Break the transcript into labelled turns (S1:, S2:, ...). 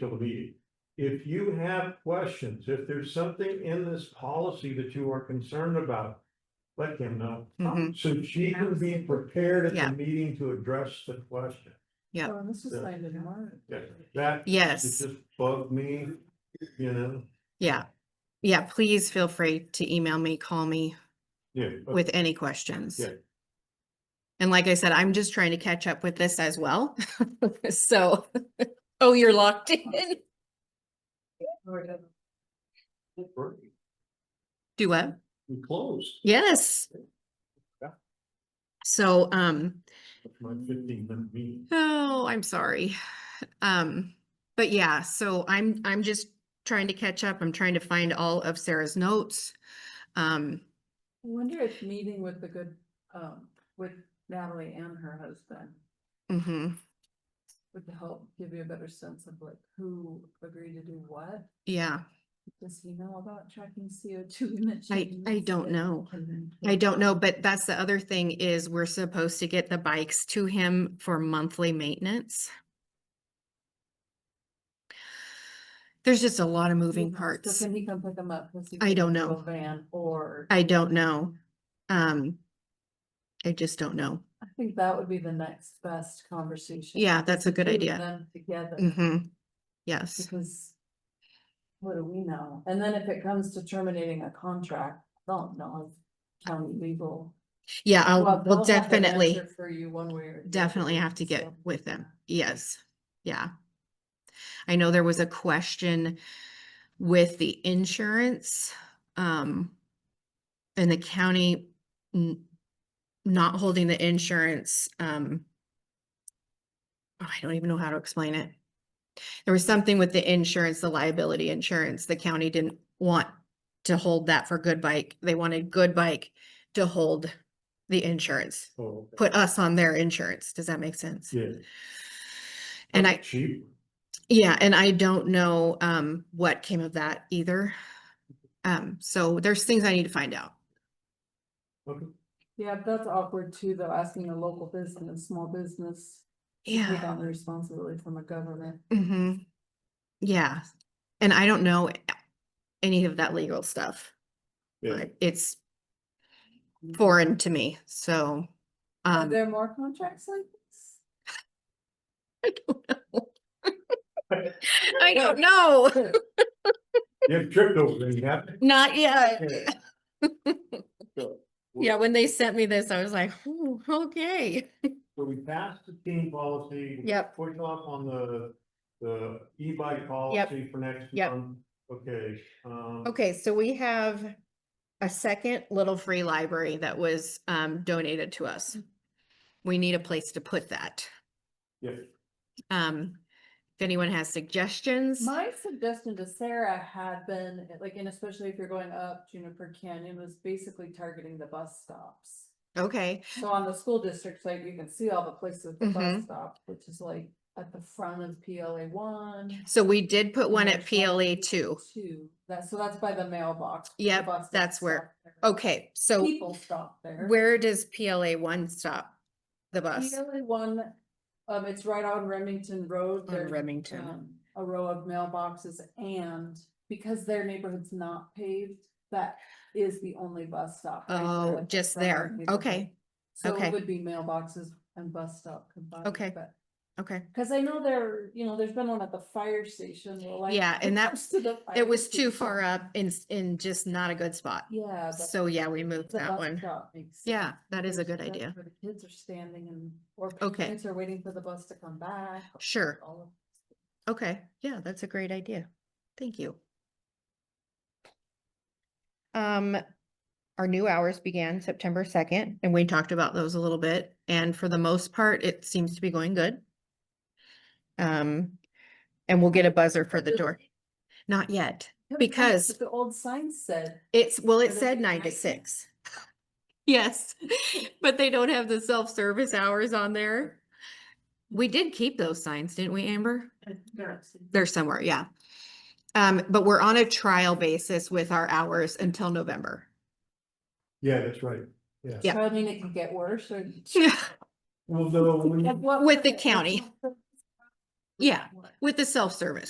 S1: to the meeting. If you have questions, if there's something in this policy that you are concerned about, let Kim know.
S2: Mhm.
S1: So she can be prepared at
S2: Yeah.
S1: the meeting to address the question.
S2: Yep.
S3: Oh, and This is
S1: Yeah.
S3: landed in March.
S1: That, it
S2: Yes,
S1: just bugged me, you know,
S2: yeah. Yeah, please feel free to email me, call me
S1: yeah. but-
S2: with any questions.
S1: Yeah.
S2: And like I said, I'm just trying to catch up with this as well. So, oh, you're locked in. Do what?
S1: We closed.
S2: Yes.
S1: Yeah.
S2: So, um,
S1: That's My fifteen minute meeting.
S2: oh, I'm sorry. Um, but yeah, so I'm, I'm just trying to catch up. I'm trying to find all of Sarah's notes. Um,
S3: I wonder if meeting with the good, um, with Natalie and her husband
S2: mhm.
S3: would help give you a better sense of like who agreed to do what?
S2: Yeah,
S3: Does he know about tracking CO two emissions?
S2: I, I don't know. I don't know, but that's the other thing is we're supposed to get the bikes to him for monthly maintenance. There's just a lot of moving parts.
S3: So can he come pick them up? Does he
S2: I
S3: take
S2: don't
S3: him to a
S2: know.
S3: Van or,
S2: I don't know. Um, I just don't know.
S3: I think that would be the next best conversation.
S2: Yeah, that's a good
S3: Two of
S2: idea.
S3: Them together.
S2: hmm Yes,
S3: Because what do we know? And then if it comes to terminating a contract, I don't know if county legal.
S2: yeah, I'll, Oh,
S3: Well,
S2: we'll
S3: they'll have an
S2: definitely,
S3: answer For you one way or. the other,
S2: definitely have to get
S3: so,
S2: with them. Yes, yeah. I know there was a question with the insurance, um, and the county n- not holding the insurance, um, oh, I don't even know how to explain it. There was something with the insurance, the liability insurance, the county didn't want to hold that for Good Bike. They wanted Good Bike to hold the insurance,
S1: Oh,
S2: put us on their insurance. Does that make sense?
S1: Yeah.
S2: And I,
S1: Cheap.
S2: yeah, and I don't know um what came of that either. Um, so there's things I need to find out.
S1: Okay.
S3: Yeah, that's awkward too, though, asking a local business, small business. to Take
S2: Yeah.
S3: on the responsibility from a government.
S2: hmm Yeah, and I don't know any of that legal stuff.
S1: Yeah.
S2: Like, It's foreign to me, so
S3: Are
S2: um,
S3: there more contracts like this?
S2: I don't know. I don't know,
S1: You have tripped over there, you have.
S2: not yet.
S1: So,
S2: Yeah, when they sent me this, I was like, "Ooh, okay,
S1: So we passed the team policy. we
S2: Yep.
S1: Push off on the, the e-bike policy for next
S2: Yep.
S1: month. Okay, um.
S2: Okay, so we have a second little free library that was um donated to us. We need a place to put that.
S1: Yeah,
S2: Um, if anyone has suggestions,
S3: My suggestion to Sarah had been, like, and especially if you're going up Juniper Canyon, was basically targeting the bus stops.
S2: okay,
S3: So on the school district site, you can see all the places the
S2: Mhm.
S3: bus stop, which is like at the front of PLA one.
S2: so we did put
S3: and
S2: one
S3: there's
S2: at PLA two.
S3: Two, that, so that's by the mailbox. the
S2: Yep,
S3: bus doesn't
S2: that's where-
S3: stop there.
S2: Okay, so
S3: People stop there.
S2: where does PLA one stop? The bus
S3: PLA one, um, it's right on Remington Road.
S2: on
S3: There's,
S2: Remington.
S3: um, A row of mailboxes and because their neighborhood's not paved, that is the only bus stop. right there,
S2: Oh,
S3: like,
S2: just
S3: from our
S2: there.
S3: neighborhood.
S2: Okay,
S3: So
S2: okay.
S3: it would be mailboxes and bus stop combined.
S2: Okay.
S3: but-
S2: okay.
S3: Cause I know there, you know, there's been one at the fire station. we're like,
S2: Yeah, and that-
S3: "Close to the fire
S2: It was too
S3: station."
S2: far up and s- in just not a good spot.
S3: Yeah. but
S2: So yeah, we moved
S3: the
S2: that
S3: bus
S2: one.
S3: stop makes sense
S2: Yeah, that is a
S3: because
S2: good
S3: that's
S2: idea.
S3: where the Kids are standing and, or
S2: Okay.
S3: parents are waiting for the bus to come back. or
S2: Sure.
S3: all of-
S2: Okay, yeah, that's a great idea. Thank you. Um, our new hours began September second, and we talked about those a little bit, and for the most part, it seems to be going good. Um, and we'll get a buzzer for the door. Not yet.
S3: Yeah, but that's what
S2: Because-
S3: The old sign said,
S2: It's, well,
S3: Or
S2: it
S3: they
S2: said
S3: could
S2: nine to
S3: write.
S2: six. Yes, but they don't have the self-service hours on there. We did keep those signs, didn't we, Amber? They're somewhere, yeah. Um, but we're on a trial basis with our hours until November.
S1: yeah, that's right.
S2: Yeah.
S3: so I mean, it can get worse or.
S1: Well, though, we-
S3: Like, what
S2: With
S3: was
S2: the
S3: it?
S2: county. Yeah, with the self-service.